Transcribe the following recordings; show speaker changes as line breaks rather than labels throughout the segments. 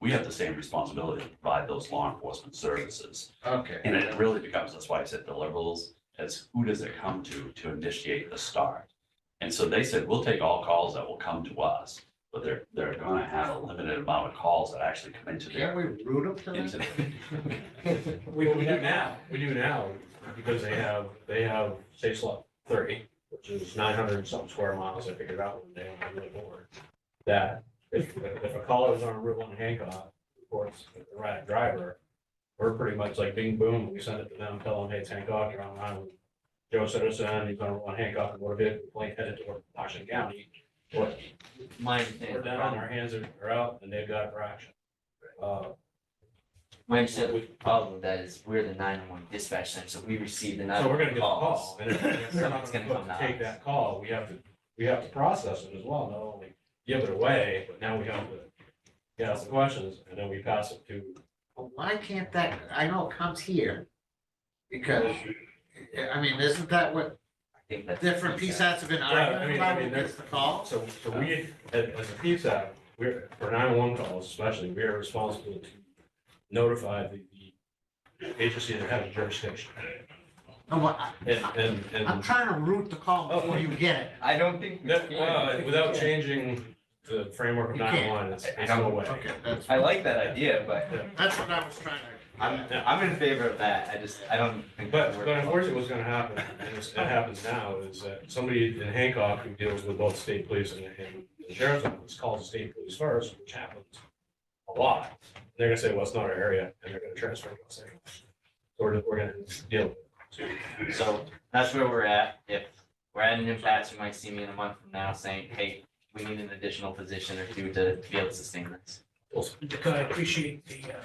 we have the same responsibility to provide those law enforcement services.
Okay.
And it really becomes, that's why I said deliverables, as who does it come to to initiate the start? And so they said, we'll take all calls that will come to us, but they're, they're gonna have a limited amount of calls that actually come into their,
Can't we root them
into
to
their
that?
We, we do now, we do now, because they have, they have, say slot thirty, which is nine hundred and something square miles, I figured out one day when I was board. That if, if a caller is on Route One Hancock, of course, with the right driver, we're pretty much like bing boom, we send it to them, tell them, hey, it's Hancock, you're on line with Joe Citizen, he's on Route One Hancock, and what if, plane headed toward Washington County, what,
My
we're
uh, understanding,
down, our hands are are out, and they've got a fraction. Uh,
my understanding
we-
of the problem with that is we're the nine-one dispatch center, so we receive the
So we're gonna
nine-one
get a
calls.
call, and if we're not
Someone's
gonna
gonna
go
come
to
to
take
us.
that call, we have to, we have to process it as well, not only give it away, but now we have to get us the questions, and then we pass it to,
Well, Why can't that, I know it comes here, because, I mean, isn't that what
I think that's-
different PSATs have been
Well, I
arguing
mean, I
about,
mean,
who
there's
gets the call?
so, so we, as, as a PSAP, we're, for nine-one calls especially, we are responsible to notify the, the agency that has jurisdiction,
No, what- I-
and, and, and.
I'm trying to root the call
Oh,
before you get it.
I don't think. we
That,
can.
uh, without changing the framework of
You can't.
nine-one, it's,
I- I
it's no
don't-
way.
Okay, that's,
I like that idea, but
that's what I was trying to.
I'm, I'm in favor of that, I just, I don't think.
But,
that
but
works.
unfortunately, what's gonna happen, and it's- it happens now, is that somebody in Hancock who deals with both state police and, and the sheriff's office calls the state police first, which happens a lot. They're gonna say, well, it's not our area, and they're gonna transfer it. So we're, we're gonna deal with it.
So that's where we're at. If we're at an impasse, you might see me in a month from now saying, hey, we need an additional position or two to be able to sustain this.
I appreciate the, uh,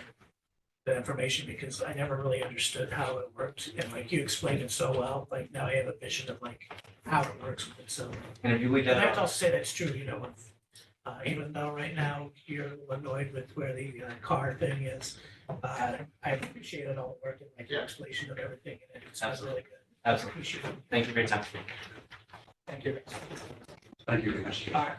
the information because I never really understood how it worked. And like you explained it so well, like now I have a vision of like how it works with it. So
And if you leave
in
that
fact, I'll
out,
say that's true, you know, with, uh, even though right now you're annoyed with where the uh, car thing is, uh, I appreciate it all working, like your explanation of everything. And it's been really good.
absolutely.
Appreciate it.
Thank you for your time.
Thank you.
Thank you, Commissioner.
All right.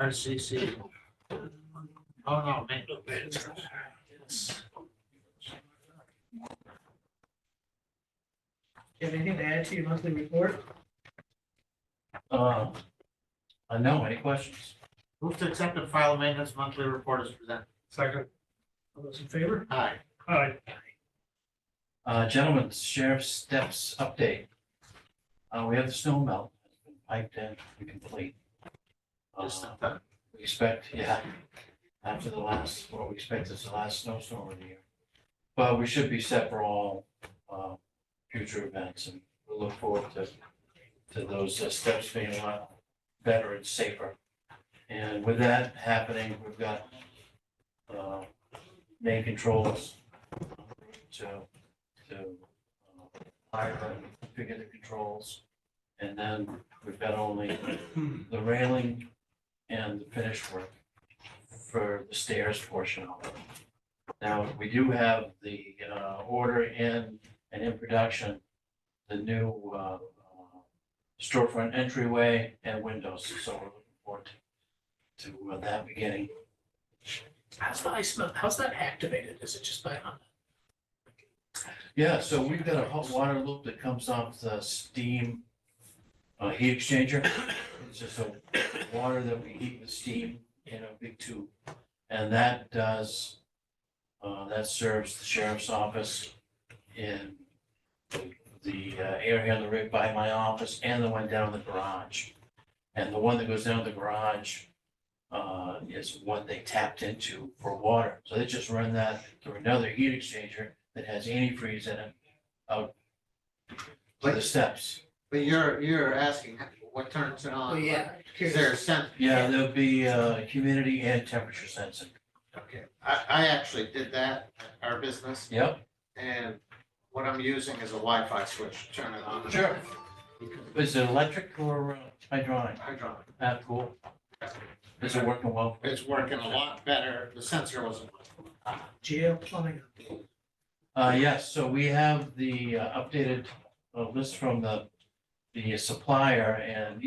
RCC. Oh, no, man.
Do you have anything to add to your monthly report?
Uh, uh, no, any questions?
Move to accept and file maintenance monthly report is presented.
Second. All those in favor?
Aye.
Aye.
Uh, gentlemen, sheriff's steps update. Uh, we have the snow melt, piped in, and complete. Uh,
Just not done.
we expect, yeah, after the last, what we expect is the last snowstorm of the year. But we should be set for all, uh, future events and we look forward to, to those uh, steps being a lot better and safer. And with that happening, we've got, uh, main controls to, to, uh, fire them, configure the controls. And then we've got only the railing and the finish work for the stairs portion of it. Now, we do have the uh, order in and in production, the new uh, storefront entryway and windows, so we're looking forward to to uh, that beginning.
How's the ice melt, how's that activated? Is it just by,
Uh,
Yeah, so we've got a hot water loop that comes off the steam uh, heat exchanger. It's just a water that we heat with steam in a big tube. And that does, uh, that serves the sheriff's office in the uh, area on the rig by my office and the one down the garage. And the one that goes down the garage uh, is what they tapped into for water. So they just run that through another heat exchanger that has antifreeze in it out to the steps.
But you're, you're asking what turns it on?
oh, yeah.
Is there a sense?
Yeah, there'll be uh, humidity and temperature sensing.
Okay, I, I actually did that at our business,
Yep,
and what I'm using is a Wi-Fi switch, to turn it on.
Sure. is it electric or uh, hydraulic?
Hydraulic.
Ah, cool. Is it working well?
It's working a lot better, the sensor wasn't. working.
Jail plumbing.
Uh, yes, so we have the uh, updated uh, list from the, the supplier and